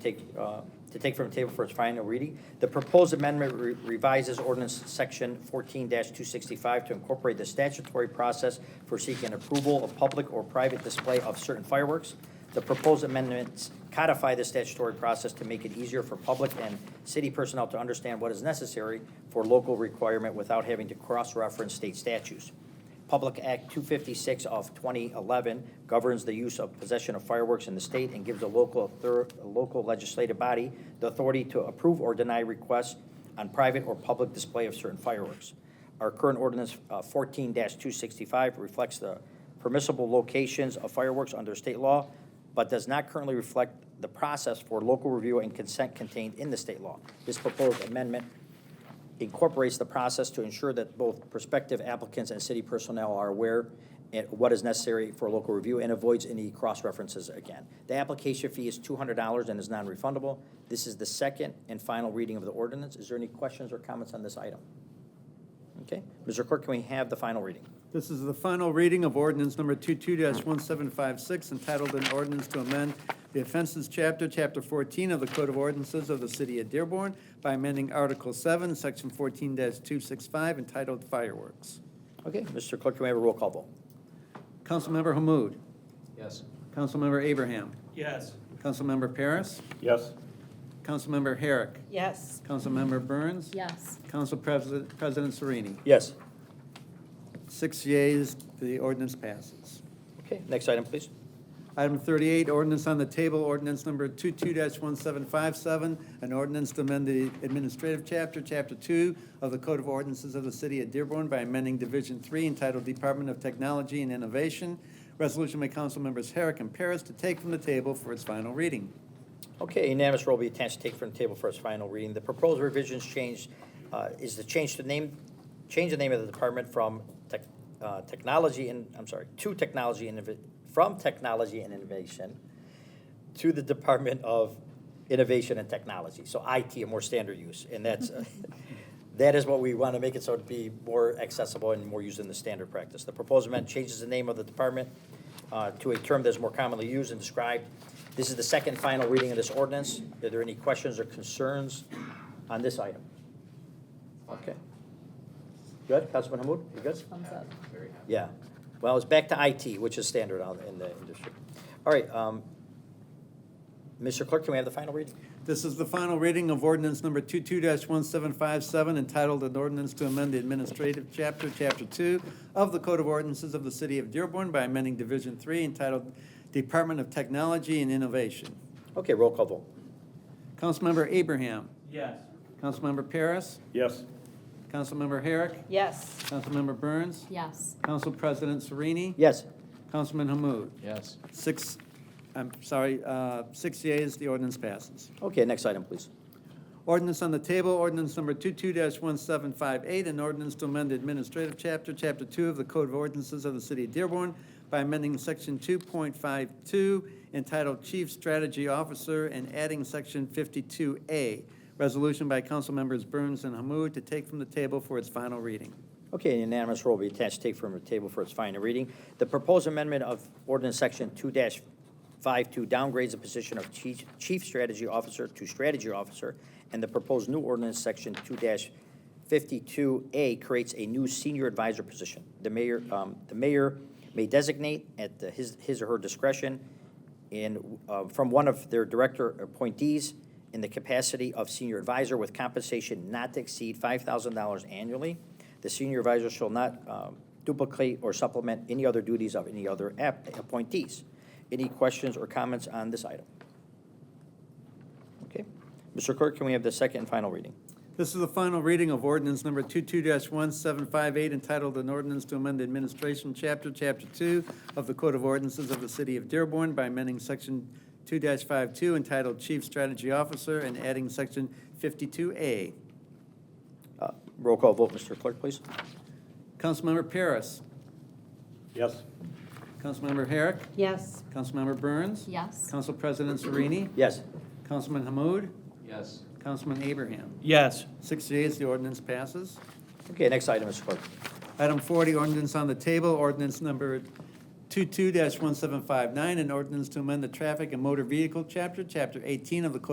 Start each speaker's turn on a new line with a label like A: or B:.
A: take, uh, to take from the table for its final reading. The proposed amendment re- revises ordinance section fourteen two sixty-five to incorporate the statutory process for seeking approval of public or private display of certain fireworks. The proposed amendments codify the statutory process to make it easier for public and city personnel to understand what is necessary for local requirement without having to cross-reference state statutes. Public Act 256 of 2011 governs the use of possession of fireworks in the state and gives the local, author- local legislative body the authority to approve or deny requests on private or public display of certain fireworks. Our current ordinance uh, 14-265 reflects the permissible locations of fireworks under state law, but does not currently reflect the process for local review and consent contained in the state law. This proposed amendment incorporates the process to ensure that both prospective applicants and city personnel are aware and what is necessary for local review and avoids any cross-references again. The application fee is two hundred dollars and is non-refundable. This is the second and final reading of the ordinance. Is there any questions or comments on this item? Okay, Mr. Clerk, can we have the final reading?
B: This is the final reading of ordinance number 22-1756, entitled an ordinance to amend the offenses chapter, chapter 14 of the Code of Ordinances of the City of Dearborn by amending Article 7, Section 14-265, entitled fireworks.
A: Okay, Mr. Clerk, can we have a roll call vote?
B: Councilmember Hamud.
C: Yes.
B: Councilmember Abraham.
C: Yes.
B: Councilmember Paris.
D: Yes.
B: Councilmember Herrick.
E: Yes.
B: Councilmember Burns.
E: Yes.
B: Council President President Sereni.
A: Yes.
B: Six yeas, the ordinance passes.
A: Okay, next item, please.
B: Item 38, ordinance on the table, ordinance number 22-1757, an ordinance to amend the administrative chapter, Chapter 2 of the Code of Ordinances of the City of Dearborn by amending Division 3 entitled Department of Technology and Innovation. Resolution by council members Herrick and Paris to take from the table for its final reading.
A: Okay, unanimous roll be attached to take from the table for its final reading. The proposed revisions change, uh, is the change to name, change the name of the department from tech, uh, technology and, I'm sorry, to technology and, from technology and innovation to the Department of Innovation and Technology, so IT, a more standard use. And that's, uh, that is what we want to make it so it be more accessible and more used in the standard practice. The proposed amendment changes the name of the department uh, to a term that's more commonly used and described. This is the second final reading of this ordinance. Are there any questions or concerns on this item? Okay. Good, Councilman Hamud, you good?
E: Thumbs up.
A: Yeah. Well, it's back to IT, which is standard out in the industry. All right, um, Mr. Clerk, can we have the final reading?
B: This is the final reading of ordinance number 22-1757, entitled an ordinance to amend the administrative chapter, Chapter 2 of the Code of Ordinances of the City of Dearborn by amending Division 3 entitled Department of Technology and Innovation.
A: Okay, roll call vote.
B: Councilmember Abraham.
C: Yes.
B: Councilmember Paris.
D: Yes.
B: Councilmember Herrick.
E: Yes.
B: Councilmember Burns.
E: Yes.
B: Council President Sereni.
A: Yes.
B: Councilman Hamud.
C: Yes.
B: Six, I'm sorry, uh, six yeas, the ordinance passes.
A: Okay, next item, please.
B: Ordinance on the table, ordinance number 22-1758, an ordinance to amend the administrative chapter, Chapter 2 of the Code of Ordinances of the City of Dearborn by amending Section 2.52 entitled Chief Strategy Officer and adding Section 52A. Resolution by council members Burns and Hamud to take from the table for its final reading.
A: Okay, an unanimous roll will be attached, take from the table for its final reading. The proposed amendment of ordinance section two 52 downgrades the position of chief, chief strategy officer to strategy officer, and the proposed new ordinance section two fifty-two A creates a new senior advisor position. The mayor, um, the mayor may designate at the- his, his or her discretion in, uh, from one of their director appointees in the capacity of senior advisor with compensation not to exceed five thousand dollars annually. The senior advisor shall not um, duplicate or supplement any other duties of any other app- appointees. Any questions or comments on this item? Okay. Mr. Clerk, can we have the second and final reading?
B: This is the final reading of ordinance number 22-1758, entitled an ordinance to amend the administration chapter, chapter 2 of the Code of Ordinances of the City of Dearborn by amending section 2-52 entitled Chief Strategy Officer and adding section 52A.
A: Uh, Roll call vote, Mr. Clerk, please.
B: Councilmember Paris.
D: Yes.
B: Councilmember Herrick.
E: Yes.
B: Councilmember Burns.
E: Yes.
B: Council President Sereni.
A: Yes.
B: Councilman Hamud.
C: Yes.
B: Councilman Abraham.
C: Yes.
B: Six yeas, the ordinance passes.
A: Okay, next item, Mr. Clerk.
B: Item 40, ordinance on the table, ordinance number 22-1759, an ordinance to amend the traffic and motor vehicle chapter, chapter 18 of the Code